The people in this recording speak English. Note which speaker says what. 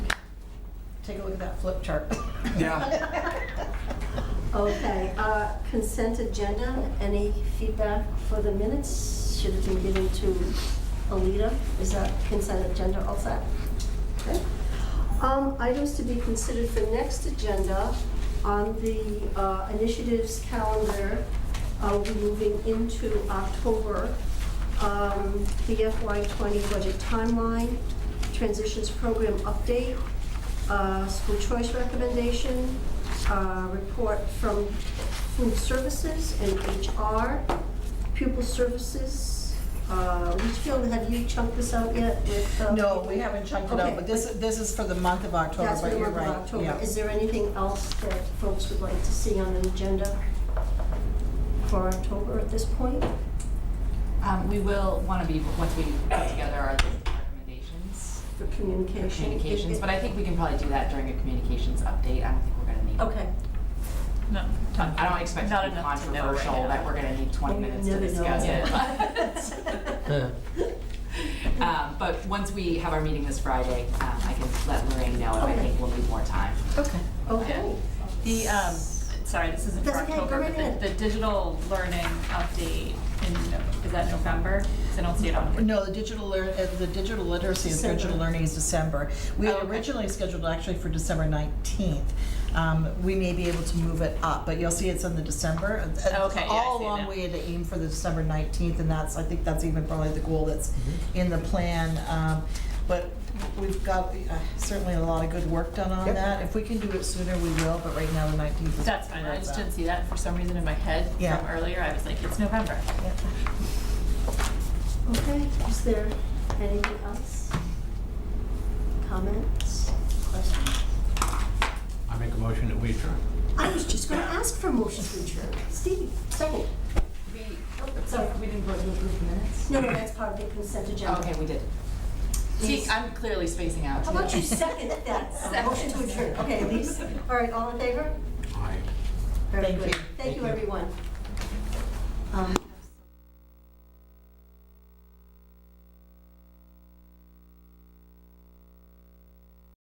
Speaker 1: take a look at that flip chart.
Speaker 2: Yeah.
Speaker 3: Okay, uh, consent agenda, any feedback for the minutes? Should have been given to Alita. Is that consent agenda all set? Okay. Um, Items to be considered for next agenda on the uh, initiatives calendar, uh, we're moving into October. Um, The FY '20 budget timeline, transitions program update, uh, school choice recommendation, uh, report from food services and HR, pupil services. Uh, Litchfield, have you chunked this out yet with? uh,
Speaker 1: No, we haven't chunked it out,
Speaker 3: Okay.
Speaker 1: but this, this is for the month of October,
Speaker 3: That's
Speaker 1: but
Speaker 3: what
Speaker 1: you're
Speaker 3: we're
Speaker 1: right.
Speaker 3: on October.
Speaker 1: yeah.
Speaker 3: Is there anything else that folks would like to see on an agenda for October at this point?
Speaker 4: Um, we will wanna be, once we put together our recommendations
Speaker 3: For
Speaker 4: for
Speaker 3: communication?
Speaker 4: communications, but I think we can probably do that during a communications update, I don't think we're gonna need.
Speaker 3: Okay.
Speaker 5: No. time.
Speaker 4: I don't expect it
Speaker 5: Not
Speaker 4: to be
Speaker 5: enough to know right
Speaker 4: controversial,
Speaker 5: now.
Speaker 4: that we're gonna need twenty
Speaker 3: Well, you
Speaker 4: minutes to
Speaker 3: never
Speaker 4: discuss
Speaker 3: know.
Speaker 4: it.
Speaker 6: Yeah.
Speaker 4: but- Um, but once we have our meeting this Friday, um, I can let Lorraine know, and I
Speaker 3: Okay.
Speaker 4: think we'll need more time.
Speaker 1: Okay.
Speaker 3: Okay.
Speaker 5: The, um, sorry, this isn't for
Speaker 3: That's okay, go
Speaker 5: October,
Speaker 3: right
Speaker 5: but the,
Speaker 3: ahead.
Speaker 5: the digital learning update in, Nov- is that November? 'Cause I don't see it on here.
Speaker 1: No, the digital, lear- uh, the digital literacy and digital
Speaker 3: December.
Speaker 1: learning is December. We
Speaker 5: Oh,
Speaker 1: had
Speaker 5: okay.
Speaker 1: originally scheduled actually for December 19th. Um, We may be able to move it up, but you'll see it's in the December. Uh, uh,
Speaker 5: Okay, yeah, I
Speaker 1: All
Speaker 5: see
Speaker 1: along,
Speaker 5: now.
Speaker 1: we had to aim for the December 19th, and that's, I think that's even probably the goal that's in the plan. Um, But we've got uh, certainly a lot of good work done on
Speaker 6: Yep.
Speaker 1: that. If we can do it sooner, we will, but right now, the 19th is.
Speaker 5: That's fine, I just didn't see that for some reason in my head
Speaker 1: Yeah.
Speaker 5: from earlier, I was like, it's November.
Speaker 1: Yep.
Speaker 3: Okay, is there anything else? Comments, questions?
Speaker 2: I make a motion that we adjourn.
Speaker 3: I was just gonna ask for a motion to adjourn. Stevie, second.
Speaker 4: We,
Speaker 3: sorry,
Speaker 4: we didn't vote to approve the minutes?
Speaker 3: No, no, that's part of the consent agenda.
Speaker 4: Oh, Okay, we did. See, I'm clearly spacing out.
Speaker 3: How about you second that, uh, motion to adjourn? Okay, Elise, all right, all in favor?
Speaker 2: Aye.
Speaker 3: Very
Speaker 1: Thank
Speaker 3: good.
Speaker 1: you.
Speaker 3: Thank you, everyone. Um,